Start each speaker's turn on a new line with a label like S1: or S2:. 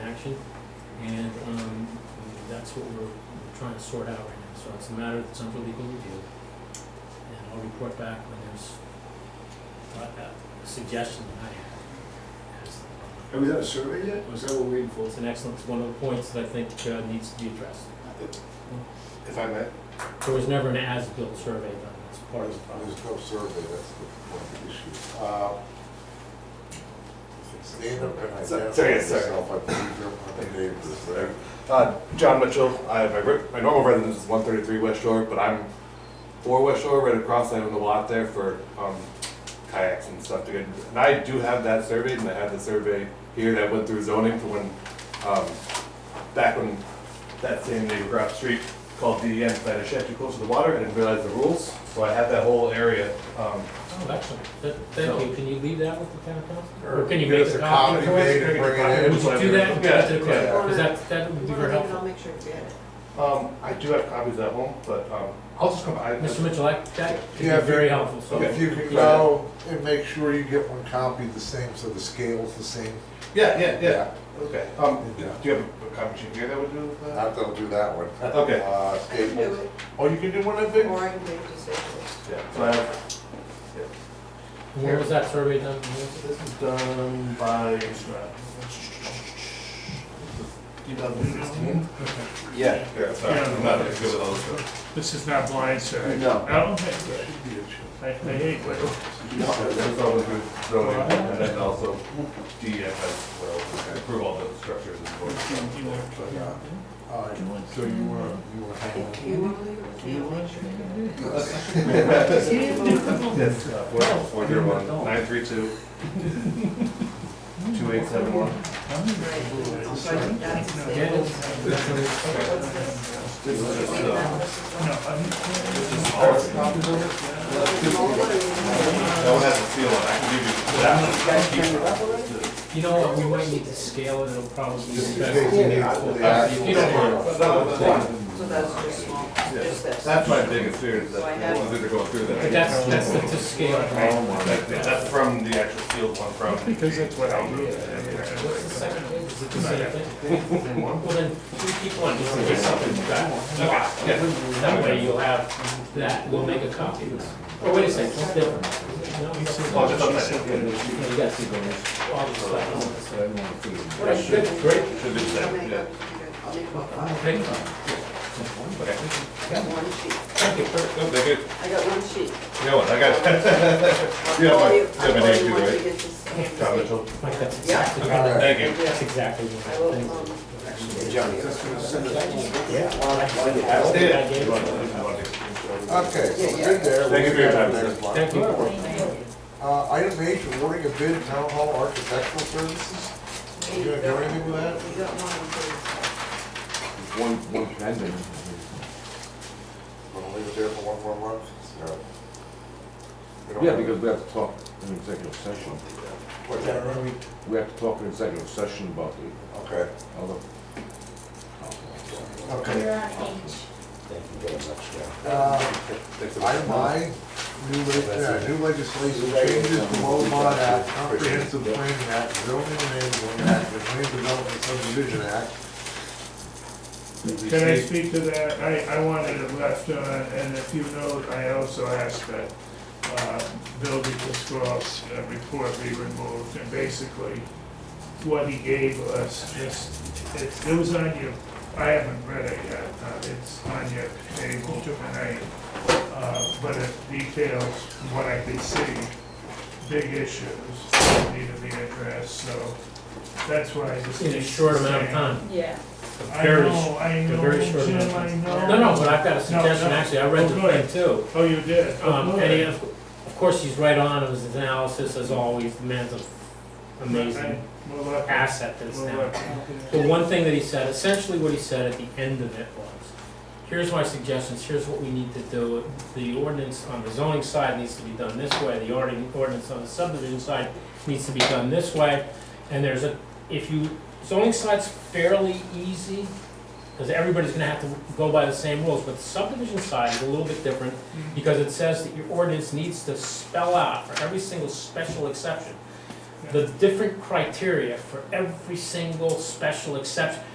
S1: action. And, um, that's what we're we're trying to sort out right now, so it's a matter that's under legal review. And I'll report back when there's a, a suggestion that I have. It's-
S2: Have we done a survey yet? Or is that what we're waiting for?
S1: It's an excellent, it's one of the points that I think, uh, needs to be addressed.
S3: If I may,
S1: There was never an as-built survey done, that's part of the problem.
S3: there's no survey, that's the point of the issue. Uh, Stand up and
S4: So-
S3: identify
S4: sorry, sorry.
S3: yourself, I believe you're one of the neighbors there.
S4: Uh, John Mitchell, I, my, re- my normal residence is one thirty-three West Shore, but I'm for West Shore, right across, I own the lot there for, um, kayaks and stuff to get, and I do have that surveyed, and I have the survey here that went through zoning for when, um, back when that same neighbor across the street called DEM, decided a shed too close to the water, I didn't realize the rules, so I have that whole area, um,
S1: Oh, excellent, Th- thank you, can you leave that with the town council? Or can you
S3: Give
S1: make
S3: us
S1: a
S3: a
S1: copy
S3: copy
S1: for us?
S3: made and bring it in.
S1: Would you do that, and give it to the
S4: Yeah, yeah.
S1: clerk, because that, that would be very helpful.
S5: I'll make sure to get it.
S4: um, I do have copies at home, but, um, I'll just come, I,
S1: Mr. Mitchell, that, that could be
S3: Yeah, if you-
S1: very helpful, so.
S3: If you can go and make sure you get one copy the same, so the scale's the same.
S4: yeah, yeah, yeah, Uh, okay, um, do you have a copy sheet here that would do that?
S3: Not that I'll do that one.
S4: Okay.
S3: Uh,
S5: I can do
S3: Staples.
S5: it,
S4: Oh, you can do one of big?
S5: or I can make it decisions.
S4: Yeah, so I have,
S1: When was that survey done?
S4: this is done by,
S6: uh,
S4: two thousand sixteen?
S3: Yeah.
S4: Yeah, sorry, I'm not as good with
S6: This is not blind, sir.
S3: No.
S6: No? I, I hate when
S4: those. So That's always good zoning, and then also DEF has, well, approve all the structures and boards.
S6: you- you know.
S3: But, uh, all right, so you were, you were hanging on.
S5: Do you want to leave it with me? I'll make sure to get it.
S4: Yes, uh, four, four zero one, nine three two, two eight seven one.
S5: Right, so I think that's the
S1: Yeah,
S5: same.
S1: it's- that's what it's-
S5: What's this?
S4: This is just, uh,
S6: No, I'm-
S4: this is all, that one has a seal on, it. I can give you that one. I'll keep it.
S1: You know what, we might need to scale it, it'll probably be
S3: Just
S1: best.
S3: in case you need the
S1: If you don't mind.
S3: actual-
S5: So that's just small, just this.
S4: That's my biggest fear, is
S5: So I
S4: that
S5: have-
S4: the ones that are going through there.
S1: But that's, that's the, to scale.
S4: Oh my. That- That's from the actual field one from.
S6: Because that's what I do.
S1: What's the second page? Is it the same thing? Well, then, we keep one, just in case something's bad. That way you'll have that, we'll make a copy of this. Oh, wait a second, what's different? No, you see-
S4: Oh, just on that.
S1: no, you got to go, all the stuff. All right, good, great.
S4: Should be the
S5: I'll
S4: same,
S5: make
S4: yeah.
S5: up- I'll make about five.
S1: Thank you.
S4: Okay.
S5: I got one sheet,
S1: Thank you. Kurt.
S4: Oh, they good.
S5: I got one sheet.
S4: You know what, I got it.
S5: I'll
S4: You have
S5: call
S4: my- you
S5: you-
S4: have my
S5: I'll call
S4: name too,
S5: you once
S4: right?
S5: you get this same
S4: John
S5: sheet.
S4: Mitchell.
S1: Mike, that's
S5: Yeah.
S1: exactly,
S3: All right.
S4: Thank you.
S1: that's
S5: Yeah,
S1: exactly
S5: I
S1: what I
S5: will, um, actually.
S2: That's gonna send us-
S1: think.
S4: Stay there.
S1: I gave it to you.
S3: Okay, so
S5: Yeah,
S3: we're good there.
S4: Thank you for your time, sir.
S3: Next one.
S1: Thank you.
S3: Uh, item H, awarding a bid to town hall architectural services. You gonna do anything with that?
S5: You got one, please.
S4: One, one pending.
S3: Wanna leave it there for one more month? No. We don't
S7: Yeah,
S3: have-
S7: because we have to talk in executive session.
S3: What's that, are we-
S7: We have to talk in executive session about the
S3: Okay.
S7: other.
S3: Okay.
S4: Thanks.
S3: Item I, new leg- uh, new legislation changes to Lomond Act, Comprehensive Planning Act, Zoning Enabling Act, and Land Development Subdivision Act.
S6: Can I speak to that? I, I wanted it left on, and if you know, I also asked that, uh, building control's uh, report be removed, and basically, what he gave us, just, it, it was on your, I haven't read it yet, uh, it's on your table tonight, uh, but it details what I could see, big issues that need to be addressed, so that's why I just.
S1: In a short amount of time.
S8: Yeah,
S6: I
S1: Very
S6: know, I
S1: a
S6: know,
S1: very short
S6: Jim,
S1: amount of
S6: I
S1: time.
S6: know.
S1: No, no, but I've got a
S6: No,
S1: suggestion,
S6: no.
S1: actually, I read the
S6: Oh, good.
S1: thing too.
S6: Oh, you did? Oh,
S1: Um,
S6: good.
S1: and he, of of course, he's right on, his analysis, as always, the man's an
S6: Okay,
S1: amazing
S6: we'll look.
S1: asset that's
S6: We'll
S1: now.
S6: look.
S1: The one thing that he said, essentially what he said at the end of it was, here's my suggestions, here's what we need to do. The ordinance on the zoning side needs to be done this way, the ordi- ordinance on the subdivision side needs to be done this way. And there's a, if you, zoning side's fairly easy, because everybody's gonna have to go by the same rules, but the subdivision side is a little bit different, because it says that your ordinance needs to spell out for every single special exception. the different criteria for every single special exception.